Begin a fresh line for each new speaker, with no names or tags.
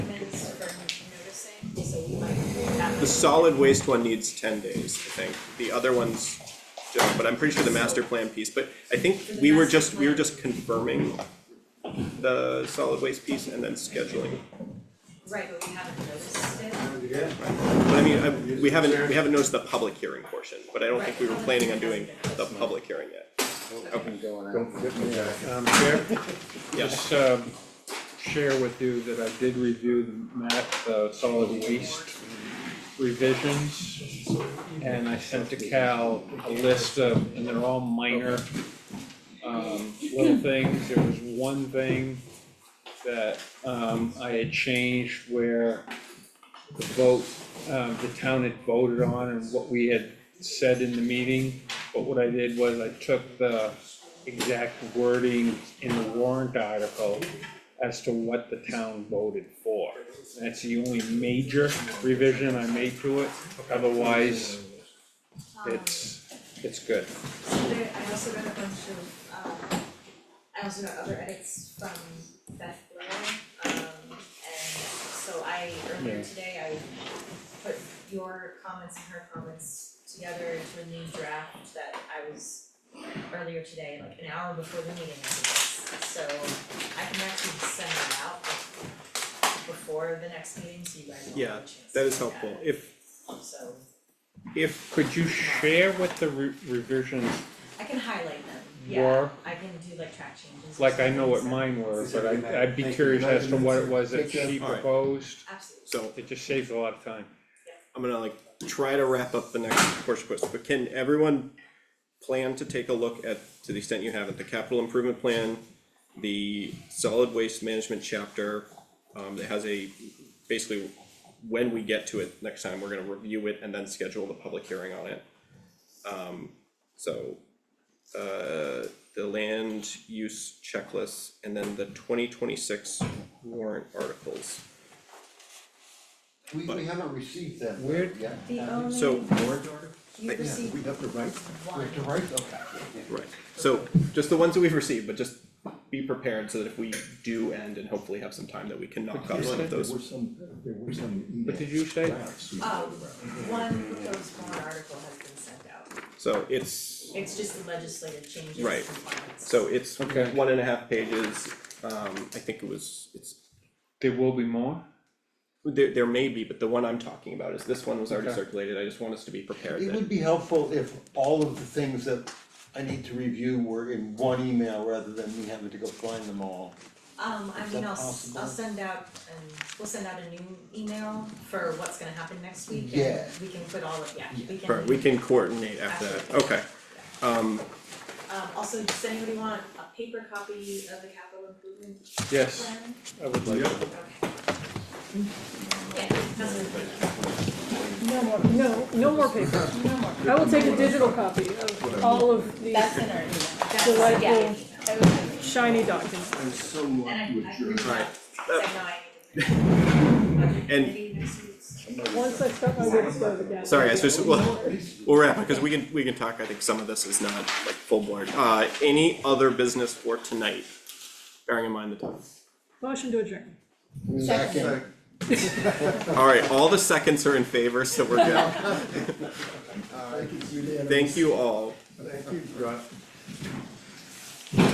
the solid waste one needs ten days, I think, the other ones, just, but I'm pretty sure the master plan piece, but I think we were just, we were just confirming the solid waste piece and then scheduling,
Right, but we haven't noticed it.
but I mean, I, we haven't, we haven't noticed the public hearing portion, but I don't think we were planning on doing the public hearing yet.
Um, Chair,
Yeah.
just, um, share with you that I did review the map, the solid waste revisions. And I sent to Cal a list of, and they're all minor, um, little things. There was one thing that, um, I had changed where the vote, um, the town had voted on and what we had said in the meeting. But what I did was I took the exact wording in the warrant article as to what the town voted for. That's the only major revision I made to it, otherwise,
Um,
it's, it's good.
So there, I also got a bunch of, um, I also got other edits from Beth Blair, um, and so I, earlier
Yeah.
today, I put your comments and her comments together into a new draft that I was earlier today, like an hour before the meeting, I guess. So I can actually send that out before the next meeting, so you guys will
Yeah,
have a chance to
That is
look at
helpful,
it.
if,
So
if,
Could you share what the re- revisions
I can highlight them, yeah.
were?
I can do like track changes. or
Like I know what
something, so-
mine were, but
Is that
I, I'd be
right?
curious as to what it was that
Thank you.
she
All right.
proposed.
Absolutely.
so,
It just saves a lot of time.
I'm gonna like try to wrap up the next portion question, but can everyone plan to take a look at, to the extent you haven't, the capital improvement plan, the solid waste management chapter, um, that has a, basically, when we get to it next time, we're gonna review it and then schedule the public hearing on it. Um, so, uh, the land use checklist, and then the twenty twenty-six warrant articles.
We, we haven't received them
Weird.
yet.
The um, only,
So-
you
Yeah, we
received
have to write, we
one,
have to write them.
Right, so just the ones that we've received, but just be prepared so that if we do end and hopefully have some time that we can knock off some of
There
those.
were some, there were some
What did you say?
drafts.
um, one proposed warrant article has been sent out.
So it's,
It's just the legislative changes
Right.
and compliance.
so it's
Okay.
one and a half pages, um, I think it was, it's,
There will be more?
there, there may be, but the one I'm talking about is, this one was already
Okay.
circulated, I just want us to be prepared
It
that,
would be helpful if all of the things that I need to review were in one email rather than me having to go find them all.
Um, I
Is
mean,
that
I'll, s- I'll
possible?
send out, and we'll send out a new email for what's gonna happen next week, and
Yeah.
we can put all of, yeah, we can.
Right, we can coordinate after that, okay. Um,
Um, also, does anybody want a paper copy of the capital improvement
Yes,
plan?
I would like to.
Okay. Yeah, that's it.
No more, no, no more paper.
No more.
I will take a digital copy of all of these
That's in our email.
That's,
Delightful.
yeah.
I was-
shiny documents.
I'm so lucky
And I,
with
I
your.
reached out,
Alright.
saying, no, I need to.
And-
Maybe next week's.
Once I start my workflow again.
sorry, I just, well, we'll wrap it, cause we can, we can talk, I think some of this is not like full board. Uh, any other business for tonight, bearing in mind the time?
Motion to adjourn.
Back in.
All right, all the seconds are in favor, so we're good.
Thank you.
Thank you all.
Thank you, Rob.